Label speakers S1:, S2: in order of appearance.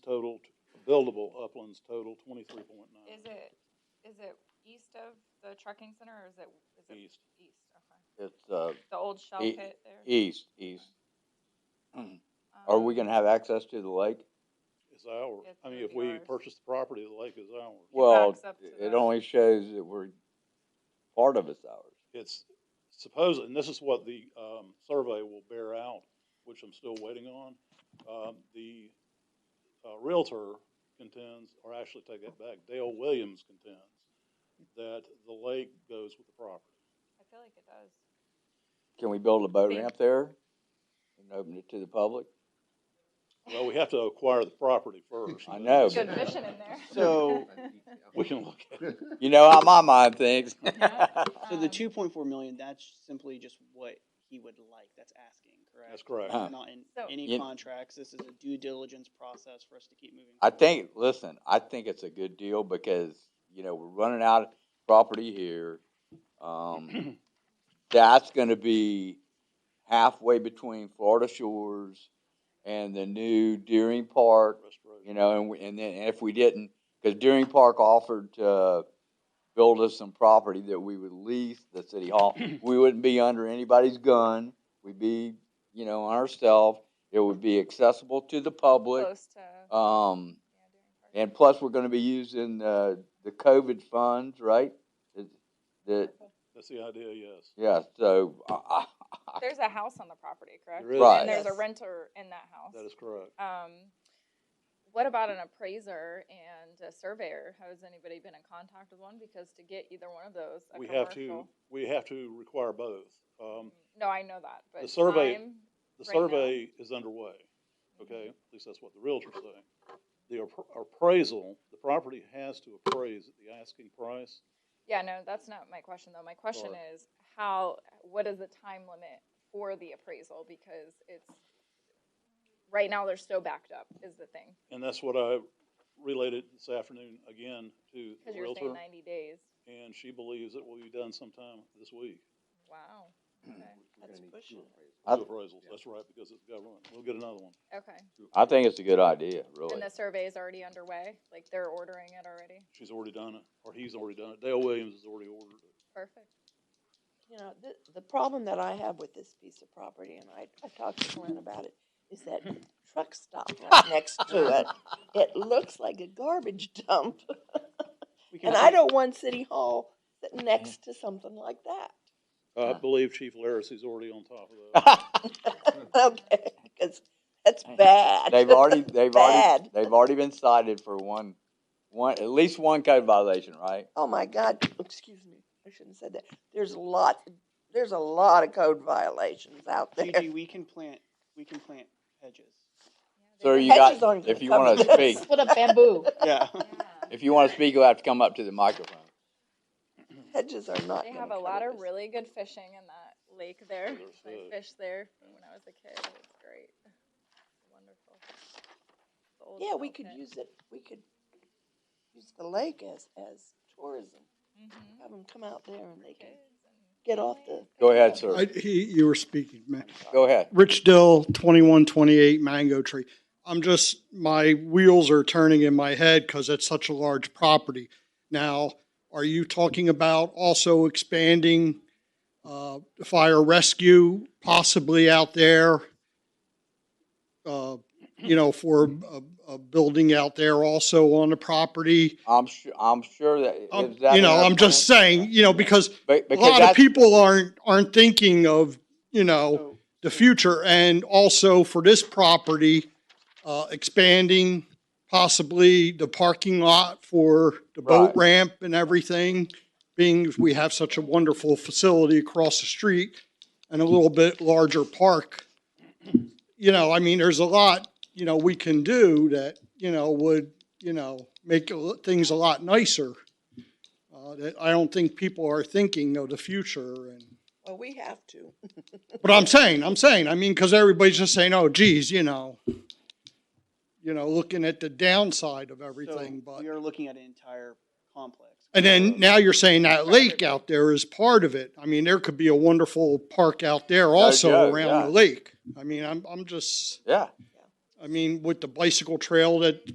S1: total, buildable uplands total twenty-three point nine
S2: Is it, is it east of the trucking center or is it, is it
S1: east.
S2: east? Okay.
S3: It's, uh,
S2: The old shell
S3: E-
S2: pit there? Um,
S3: east, east. Are we gonna have access to the lake?
S1: It's our,
S2: It's
S1: I mean,
S2: gonna
S1: if
S2: be
S1: we
S2: ours.
S1: purchase the property, the lake is ours.
S3: Well,
S2: backs up to
S3: it
S2: the-
S3: only shows that we're, part of it's ours.
S1: It's supposed, and this is what the, um, survey will bear out, which I'm still waiting on. Um, the, uh, Realtor contends, or actually take that back, Dale Williams contends that the lake goes with the property.
S2: I feel like it does.
S3: Can we build a boat
S2: Think-
S3: ramp there and open it to the public?
S1: Well, we have to acquire the property first.
S3: I
S1: but
S3: know.
S2: Good vision in there.
S4: So-
S1: We can look at it.
S3: You know how my mind thinks.
S2: Yeah.
S4: So the
S2: Um,
S4: two point four million, that's simply just what he would like, that's asking, correct?
S1: That's correct.
S3: Uh-huh.
S4: Not in
S2: So-
S4: any
S3: You-
S4: contracts, this is a due diligence process for us to keep moving.
S3: I
S4: forward.
S3: think, listen, I think it's a good deal because, you know, we're running out of property here. Um, that's gonna be halfway between Florida Shores and the new Deering Park,
S1: Restoration.
S3: you know, and, we- and then if we didn't, cause Deering Park offered to build us some property that we would lease the city hall. We wouldn't be under anybody's gun. We'd be, you know, on ourselves. It would be accessible to the public.
S2: Close to.
S3: Um,
S2: yeah, Deering Park.
S3: and plus, we're gonna be using the, the COVID funds, right? The- The,
S1: That's the idea, yes.
S3: yeah, so, I, I,
S2: There's a house on the property, correct?
S1: There is.
S3: Right.
S2: And there's a
S4: Yes.
S2: renter in that house.
S1: That is correct.
S2: Um, what about an appraiser and a surveyor? Has anybody been in contact with one? Because to get either one of those, a
S1: We have to,
S2: commercial-
S1: we have to require both. Um,
S2: No, I know that, but
S1: The survey-
S2: time-
S1: the
S2: Right now.
S1: survey is underway, okay? At least that's what the realtor's saying. The appra- appraisal, the property has to appraise at the asking price.
S2: Yeah, no, that's not my question though. My question
S1: Sorry.
S2: is how, what is the time limit for the appraisal? Because it's, right now they're so backed up is the thing.
S1: And that's what I related this afternoon again to
S2: Cause
S1: the
S2: you're saying
S1: realtor.
S2: ninety days.
S1: And she believes it will be done sometime this week.
S2: Wow. Okay.
S5: That's pushing it.
S3: I-
S1: Two appraisals, that's right, because it's government. We'll get another one.
S2: Okay.
S3: I think it's a good idea, really.
S2: And the survey is already underway? Like they're ordering it already?
S1: She's already done it, or he's already done it. Dale Williams has already ordered it.
S2: Perfect.
S5: You know, the, the problem that I have with this piece of property, and I, I talked to Glenn about it, is that
S2: Hmm.
S5: truck stop right next to it. It looks like a garbage dump,
S4: We can
S5: and I don't want City Hall sitting next to something like that.
S1: I
S3: Yeah.
S1: believe Chief Laris is already on top of that.
S3: They've
S5: Okay, because that's bad.
S3: already, they've already,
S5: Bad.
S3: they've already been cited for one, one, at least one code violation, right?
S5: Oh my God, excuse me, I shouldn't have said that. There's a lot, there's a lot of code violations out there.
S4: Gigi, we can plant, we can plant hedges.
S3: Sir, you
S5: Hedges aren't
S3: got,
S5: gonna
S3: if you
S5: cover
S3: wanna
S5: this.
S3: speak,
S6: What a bamboo.
S4: Yeah.
S3: if you wanna speak, you'll have to come up to the microphone.
S5: Hedges are not.
S2: They
S5: gonna
S2: have a
S5: cover
S2: lot of
S5: this.
S2: really good fishing in that lake there.
S1: There's
S2: I
S1: that.
S2: fished there when I was a kid. It was great. Wonderful. The old
S5: Yeah, we
S2: shell
S5: could
S2: pit.
S5: use it, we could use the lake as, as tourism.
S2: Mhm.
S5: Have them come out there and they can
S2: Kids and-
S5: get off the.
S3: Go ahead, sir.
S7: I, he, you were speaking, man.
S3: Go ahead.
S7: Rich Dill, twenty-one twenty-eight Mango Tree. I'm just, my wheels are turning in my head because it's such a large property. Now, are you talking about also expanding, uh, fire rescue possibly out there? Uh, you know, for a, a building out there also on the property?
S3: I'm su- I'm sure that.
S7: Um,
S3: is that
S7: You know,
S3: what
S7: I'm just saying, you know, because
S3: Be-
S7: a
S3: Because
S7: lot of
S3: that's,
S7: people aren't, aren't thinking of, you know,
S4: So-
S7: the future and also for this property, uh, expanding possibly the parking lot for the boat
S3: Right.
S7: ramp and everything, being as we have such a wonderful facility across the street and a little bit larger park. You know, I mean, there's a lot, you know, we can do that, you know, would, you know, make a lo- things a lot nicer. Uh, that I don't think people are thinking of the future and.
S5: Well, we have to.
S7: But I'm saying, I'm saying, I mean, because everybody's just saying, oh, geez, you know, you know, looking at the downside of everything,
S4: so
S7: but,
S4: We are looking at an entire complex.
S7: and then now you're saying that lake out there is part of it. I mean, there could be a wonderful park out there
S3: yeah,
S7: also around
S3: yeah.
S7: the lake. I mean, I'm, I'm just,
S3: yeah.
S7: I mean, with the bicycle trail that